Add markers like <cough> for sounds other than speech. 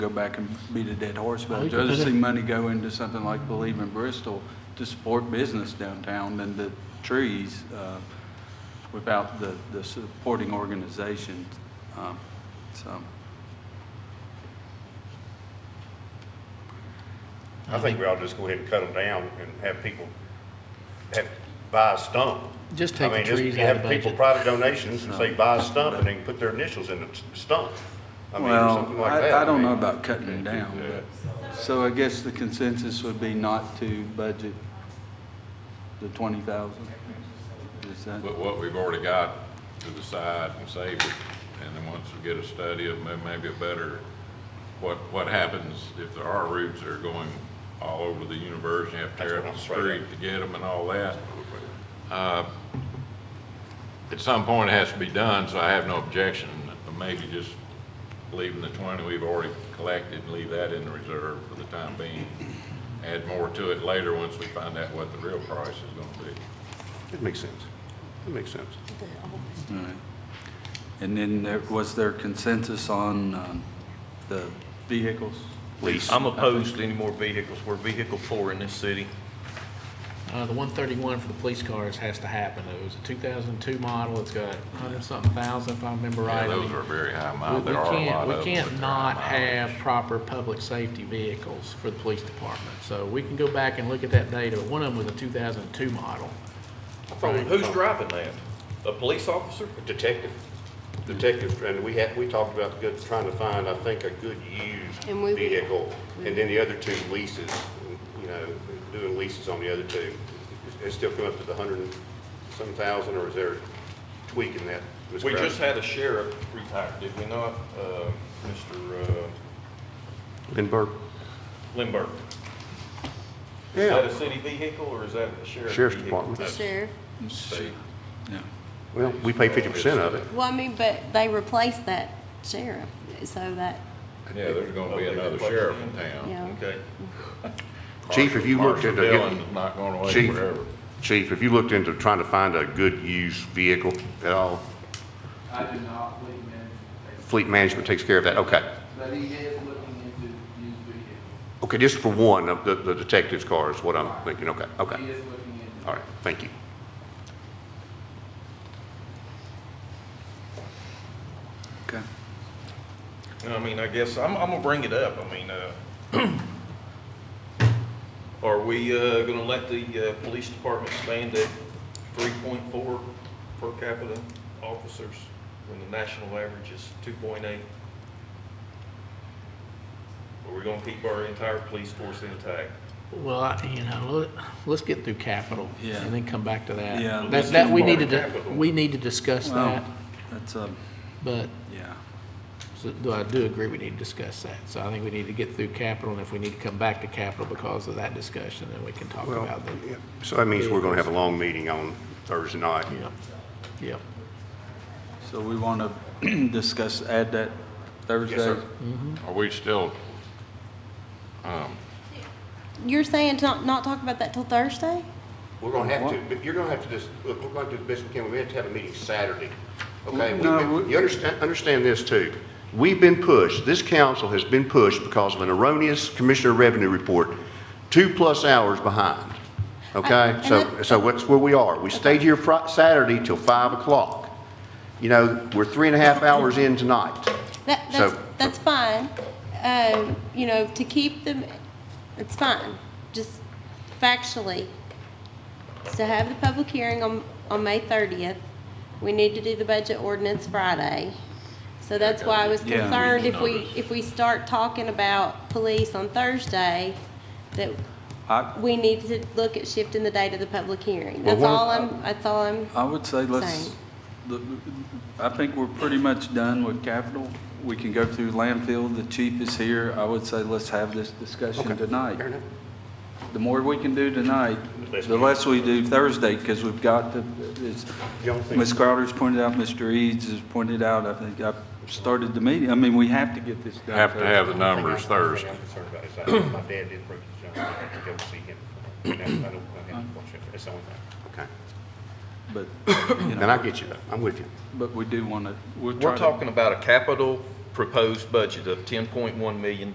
go back and beat a dead horse about We it. could I'd rather Oh, put see it- money go into something like Believe in Bristol to support business downtown than the trees uh, without the, the supporting organizations. Um, So, I think we ought to just go ahead and cut them down and have people, have, buy a stump. Just take I mean, the just trees out of the Have people budget. private donations and say, buy a stump, and they can put their initials in the s- stump. I mean, or something well, like that. I, I don't know mean, about cutting them down, but, so I guess the consensus would be not to budget the twenty thousand? Is that? But what we've already got to the side and save it, and then once we get a study of may- maybe a better, what, what happens if there are routes that are going all over the universe, and you have to tear That's up the what I'm afraid street to get them and all that. Uh, At some point, it has to be done, so I have no objection, but maybe just leaving the twenty we've already collected, leave that in the reserve for the time being. Add more to it later, once we find out what the real price is gonna be. It makes sense. It makes sense. All right. And then there, was there consensus on um, the vehicles? I'm opposed to any more vehicles. We're vehicle poor in this city. Uh, the one thirty-one for the police cars has to happen. It was a two thousand two model. It's got hundred something thousand, if I remember right. Yeah, I those mean, are very high we- miles. we There are a can't- lot of them. We but can't they're high not mileage. have proper public safety vehicles for the police department. So we can go back and look at that data. One of them was a two thousand two model. who's Who's driving that? A police officer? Detective, detective, and we had, we talked about good, trying to find, I think, a good used And we- vehicle. And then the other two leases, you know, doing leases on the other two. It still come up to the hundred and some thousand, or is there tweaking that? Ms. We Crouch? just had a sheriff retire, did we not? Uh, Mr. uh, Lindbergh. Lindbergh. Is that Yeah, a city vehicle or is that a sheriff? Sheriff's vehicle? Department. That's- Sure. Yeah. well, we pay fifty percent of it. Well, I mean, but they replaced that sheriff, so that, Yeah, there's gonna be another sheriff in town. yeah. Okay. Chief, if you looked Marshall into Dillon's getting- Not going away Chief, forever. Chief, if you looked into trying to find a good used vehicle at all, I did not leave him, fleet management takes care of that, okay. but he is looking into used vehicles. Okay, just for one, of the, the detective's car is what I'm thinking, okay, He okay. is looking into. All right, thank you. Okay. You know, I mean, I guess I'm, I'm gonna bring it up. I mean, uh, <clears throat> are we, uh, gonna let the, uh, police department stand at three point four per capita officers when the national average is two point eight? Are we gonna keep our entire police force intact? Well, I- you know, let- let's get through capital Yeah. and then come back to that. Yeah. That, that, we Let's need do to, capital. we need to discuss that, Well, that's a, but yeah. So, though I do agree we need to discuss that. So I think we need to get through capital, and if we need to come back to capital because of that discussion, then we can talk about that. So that means we're gonna have a long meeting on Thursday night. Yeah, yeah. So we want to <clears throat> discuss, add that Thursday? Yes, sir. Are we still, You're saying to not, not talk about that till Thursday? We're gonna have to, but you're gonna have to just, look, we're gonna do the best we can, we have to have a meeting Saturday, okay? We've No, been- we- You understand, understand this too. We've been pushed, this council has been pushed because of an erroneous Commissioner Revenue Report, two-plus hours behind, okay? and So, that- so that's where we are. We stayed here Fri- Saturday till five o'clock. You know, we're three and a half hours in tonight. That, So- that's, that's fine. Um, you know, to keep them, it's fine, just factually. To have the public hearing on, on May thirtieth, we need to do the budget ordinance Friday. So that's why I was Yeah. concerned if we, Notice. if we start talking about police on Thursday, that I, we need to look at shifting the date of the public hearing. Well, That's one- all I'm, that's all I'm, I would say let's, Same. the- I think we're pretty much done with capital. We can go through landfill, the chief is here. I would say let's have this discussion tonight. Fair enough. The more we can do tonight, less the we- less we do Thursday, because we've got to, it's, You don't think- Ms. Crowder's pointed out, Mr. Eads has pointed out, I think I started the meeting. I mean, we have to get this done. have to have the numbers Thursday. Thursday? uh, My dad did break his jaw, I had to go see him. I don't have to watch it, that's the only thing. Okay. But, you And know, I get you, though. I'm with you. but we do want to, we'll try We're to. talking about a capital proposed budget of ten point one million